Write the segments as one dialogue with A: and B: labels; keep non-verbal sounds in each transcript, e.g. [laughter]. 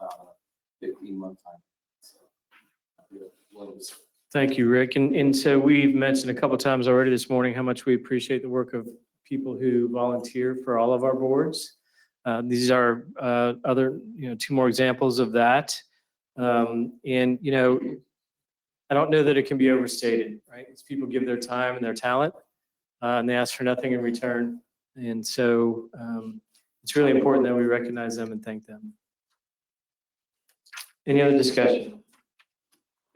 A: uh, sometime. Well, it was-
B: Thank you, Rick. And, and so we've mentioned a couple times already this morning how much we appreciate the work of people who volunteer for all of our boards. Uh, These are uh, other, you know, two more examples of that. Um, And, you know, I don't know that it can be overstated, right? These people give their time and their talent, uh, and they ask for nothing in return. And so um, it's really important that we recognize them and thank them. Any other discussion?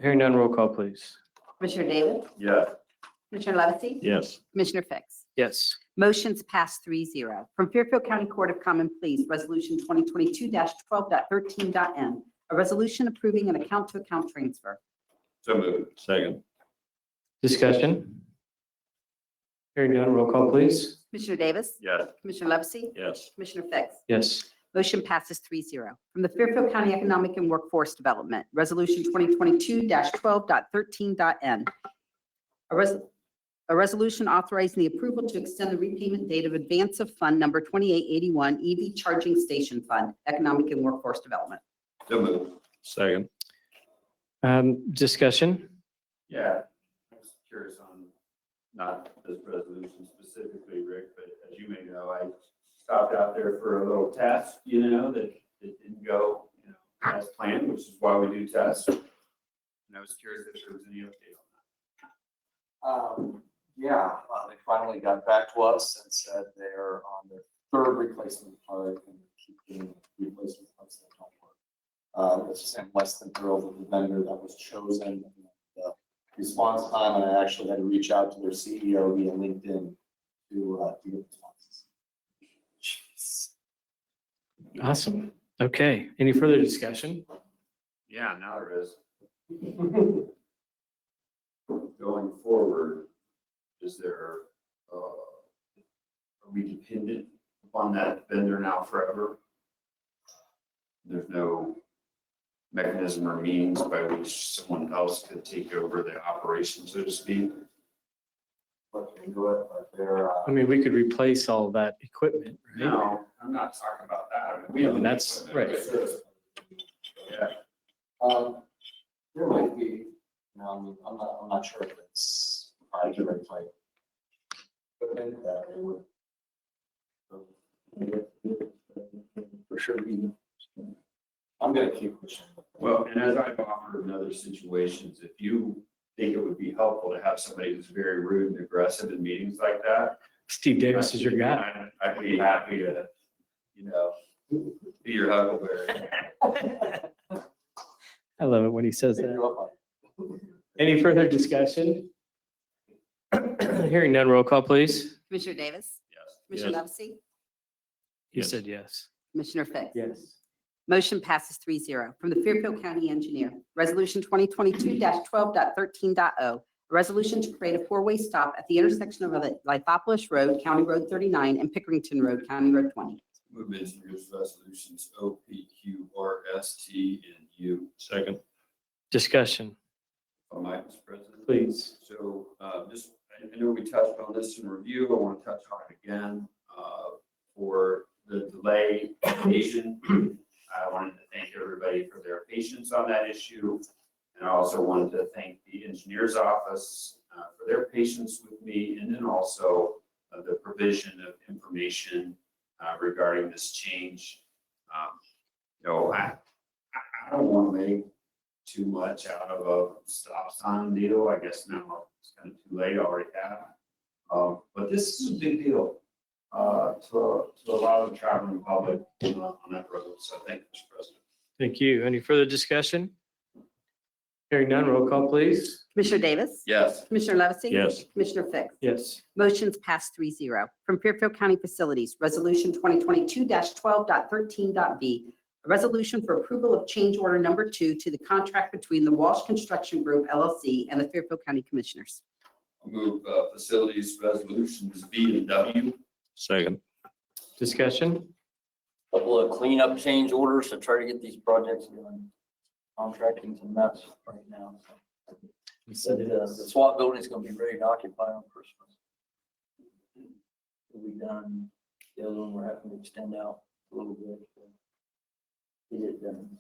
B: Hearing none, roll call, please.
C: Commissioner Davis?
D: Yeah.
C: Commissioner Levesey?
D: Yes.
C: Commissioner Fix?
B: Yes.
C: Motion's passed three zero. From Fairfield County Court of Common Pleas, Resolution 2022-12.13.n, a resolution approving an account-to-account transfer.
D: So moved. Second.
B: Discussion? Hearing none, roll call, please.
C: Commissioner Davis?
D: Yes.
C: Commissioner Levesey?
D: Yes.
C: Commissioner Fix?
B: Yes.
C: Motion passes 3-0 From the Fairfield County Economic and Workforce Development, Resolution 2022-12.13.n. A res- a resolution authorizing the approval to extend the repayment date of advance of Fund Number 2881 EV Charging Station Fund, Economic and Workforce Development.
D: So moved. Second.
B: Um, discussion?
D: Yeah. I'm just curious on, not this resolution specifically, Rick, but as you may know, I stopped out there for a little test, you know, that it didn't go, you know, as planned, which is why we do tests. And I was curious if there was any update on
A: Um, Yeah, uh, they finally got back to us and said they're on their third replacement part and keep getting replacement parts that don't work. Uh, It's just I'm less than thrilled with the vendor that was chosen. The Response time, and I actually had to reach out to their CEO via LinkedIn to uh, to get responses.
B: Awesome. Okay. Any further discussion?
D: that. Yeah, now there is. [laughs] Going forward, is there, uh, are we dependent upon that vendor now forever? There's no mechanism or means by which someone else could take over the operation, so to speak?
A: But they do it, but they're, uh,
B: I mean, we could replace all that equipment, right?
D: No, I'm not talking about that.
B: No, and that's- right.
D: Yeah,
A: Um, there might be, no, I'm, I'm not, I'm not sure if it's, I can replay. But then uh, that it would. For sure. we- I'm gonna keep pushing.
D: Well, and as I've offered in other situations, if you think it would be helpful to have somebody who's very rude and aggressive in meetings like that.
B: Steve Davis is your guy.
D: I- I'd be happy to, you know, be your huckleberry.
B: I love it when he says
A: Take
B: that.
A: you up on it.
B: Any further discussion? Hearing none, roll call, please.
C: Commissioner Davis?
D: Yes.
C: Commissioner Levesey?
B: He
D: Yes.
B: said yes.
C: Commissioner Fix?
B: Yes.
C: Motion passes three zero. From the Fairfield County Engineer, Resolution 2022-12.13.o, a resolution to create a four-way stop at the intersection of Lithopolis Road, County Road 39, and Pickerington Road, County Road 20.
D: Move engineers resolutions O P Q R S T and U. Second.
B: Discussion,
D: If I might, Mr. President.
B: please.
D: So uh, just, I- I know we touched on this in review, I want to touch on it again. uh, For the delay occasion, I wanted to thank everybody for their patience on that issue. And I also wanted to thank the engineer's office uh, for their patience with me and then also uh, the provision of information uh, regarding this change. Um, You know, I, I- I don't want to make too much out of a stop sign deal. I guess now it's kind of too late, I already have. Um, but this is a big deal, uh, to, to a lot of the traveling public uh, on that road. So thank you, Mr. President.
B: Thank you. Any further discussion? Hearing none, roll call, please.
C: Commissioner Davis?
D: Yes.
C: Commissioner Levesey?
D: Yes.
C: Commissioner Fix?
B: Yes.
C: Motion's passed three zero. From Fairfield County Facilities, Resolution 2022-12.13.b, a resolution for approval of change order number two to the contract between the Walsh Construction Group LLC and the Fairfield County Commissioners.
D: Move, uh, facilities resolutions B and W. Second.
B: Discussion?
E: couple of cleanup change orders to try to get these projects done. Contracting's a mess right now. So The the SWAT building's gonna be ready to occupy on Christmas. It'll be done, the other one we're having to extend out a little bit. to Get it done.